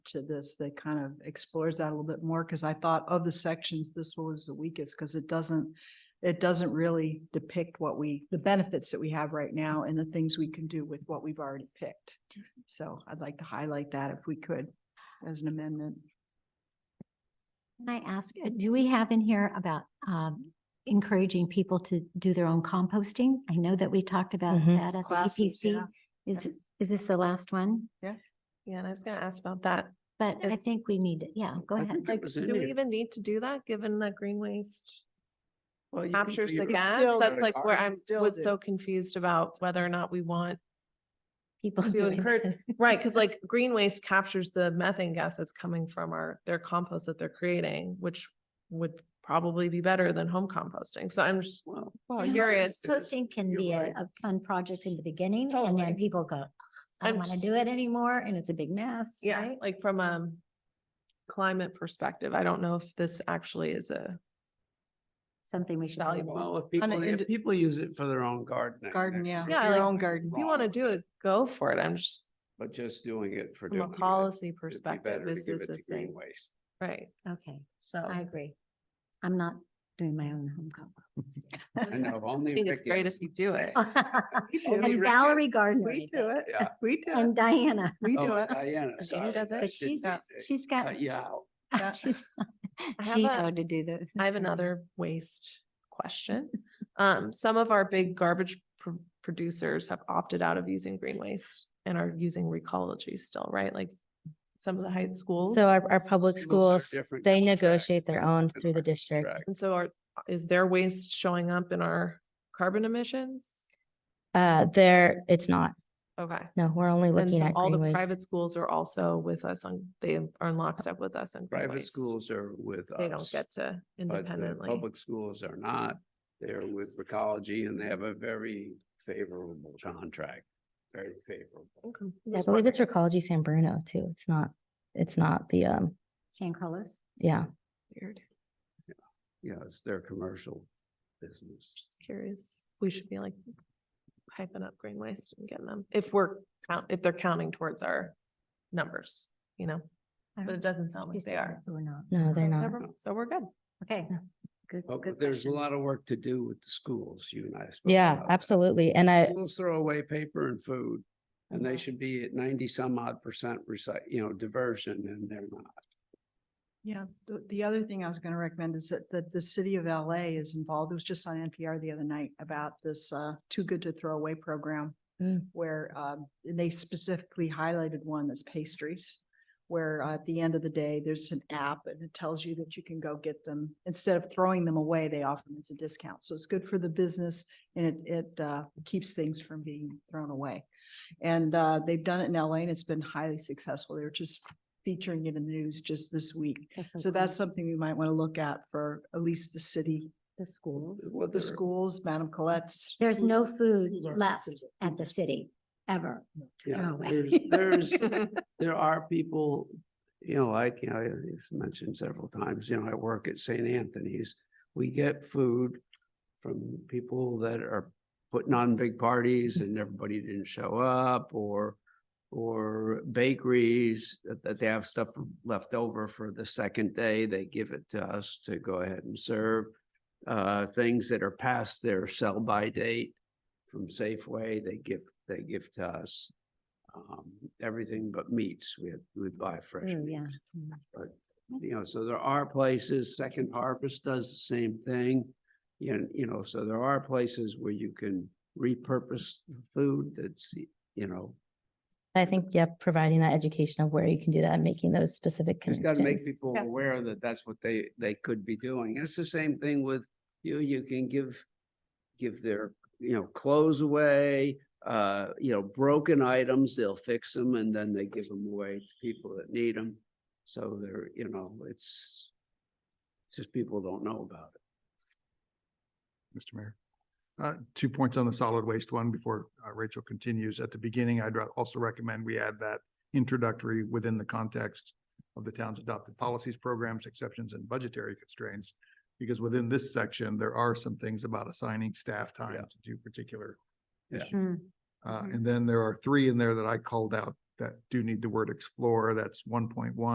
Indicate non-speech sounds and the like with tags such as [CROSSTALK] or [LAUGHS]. to this that kind of explores that a little bit more, because I thought of the sections, this one was the weakest, because it doesn't, it doesn't really depict what we, the benefits that we have right now and the things we can do with what we've already picked. So I'd like to highlight that if we could, as an amendment. Can I ask, uh, do we have in here about um, encouraging people to do their own composting? I know that we talked about Mhm. that at the Classes, yeah. EPC. Is, is this the last one? Yeah, and I was gonna ask about that. But I It's- think we need, yeah, go I ahead. think it Like, was do in we there. even need to do that, given that green waste Well, you can captures do the your- gas? still That's do. like where I'm, Still was do. so confused about whether or not we [LAUGHS] want, [LAUGHS] People to doing encourage- that. right, because like green waste captures the methane gas that's coming from our, their compost that they're creating, which would probably be better than home composting. So I'm just Well, I know curious. [LAUGHS] Composting can You're be a, right. a fun project in the beginning and Totally. then people go, "Ugh, I I'm don't want to s- do it anymore and it's a big mess. Yeah, right? like from a climate perspective, I don't know if this actually is a, Something we should. think Valuable. about. well, if people, indi- if people use it for their own gardening. Garden, that's yeah. great. Yeah, Your like, own garden. if you want to do it, go for it. I'm just, But just doing it for from doing a it. policy it'd be perspective, better to is give this it a to Green thing? Waste. Right, Okay, so. I agree. I'm not doing my own home composting. I know, only. I think it's Rick great is. if you do it. Only [LAUGHS] And Rick Valerie is. Gardner. We did do it. [LAUGHS] Yeah. We do it. And Diana, We do Oh, it. Diana, sorry. does it, I but did she's, not- she's got, Cut [LAUGHS] you out. Yeah. she's, I have she a- to do the. I have another waste question. Um, some of our big garbage pr- producers have opted out of using green waste and are using recology still, right? Like some of the high schools. So our, our public Schools are schools, different they contract negotiate their own and through the our district. contract. And so are, is their waste showing up in our carbon emissions? Uh, there, it's not. Okay. No, we're only And looking so at all the green waste. private schools are also with us on, they are in lockstep with us and. Private schools are with us. They don't get to But the independently. public schools are not. They're with Recology and they have a very favorable contract, very favorable. Okay. I believe it's Recology San Bruno too. It's not, it's not the, um, San Carlos. yeah. Oh, Weird. Yeah, it's their commercial business. Just curious. We should be like hyping up green waste and getting them, if we're, count if they're counting towards our numbers, you know, I but it don't- doesn't sound she like they said are. We're not. No, So they're not. never- So we're good. Okay. Good, But good Oh, there's a question. lot of work to do with the schools, you and I. have spoken Yeah, about that. absolutely. And I, Schools throw away paper and food and they Mhm. should be at ninety some odd percent recite, you know, diversion and they're not. Yeah, the, the other thing I was gonna recommend is that, that the city of LA is involved. It was just on NPR the other night about this, uh, Too Good to Throw Away program. Mm. Where, um, and they specifically highlighted one that's pastries, where uh, at the end of the day, there's an app and it tells you that you can go get them. Instead of throwing them away, they offer them as a discount. So it's good for the business and it, it, uh, keeps things from being thrown away. And, uh, they've done it in LA and it's been highly successful. They were just featuring it in the news just this week. So cool. that's something we might want to look at for at least the city, The schools. Well, the they're- schools, Madam Colette's. There's no schools- food schools are left considered- at the city ever. to Yeah, throw away. there's, there's, [LAUGHS] there are people, you know, like, you know, it's mentioned several times, you know, I work at St. Anthony's. We get food from people that are putting on big parties and everybody didn't show up or or bakeries that, that they have stuff left over for the second day, they give it to us to go ahead and serve. Uh, things that are past their sell-by date from Safeway, they give, they give to us um, everything but meats. We had, we buy fresh Oh, yeah. meats. You know, so there are places, Second Harvest does the same thing. You, kn- you know, so there are places where you can repurpose the food that's, you know, I think, yeah, providing that education of where you can do that and making those specific just gotta make connections. people Yeah. aware that that's what they, they could be doing. And it's the same thing with, you, you can give, give their, you know, clothes away, uh, you know, broken items, they'll fix them and then they give them away to people that need them. So they're, you know, it's it's just people don't know about it. Mr. Mayor. Uh, two points on the solid waste one before uh, Rachel continues. At the beginning, I'd ra- also recommend we add that introductory within the context of the town's adopted policies, programs, exceptions, and budgetary constraints. Because within this section, there are some things about assigning staff time Yeah. to do particular Yeah. Hmm. issues. Uh, and then there are three in there that I called out that do need the word explore, that's one point one.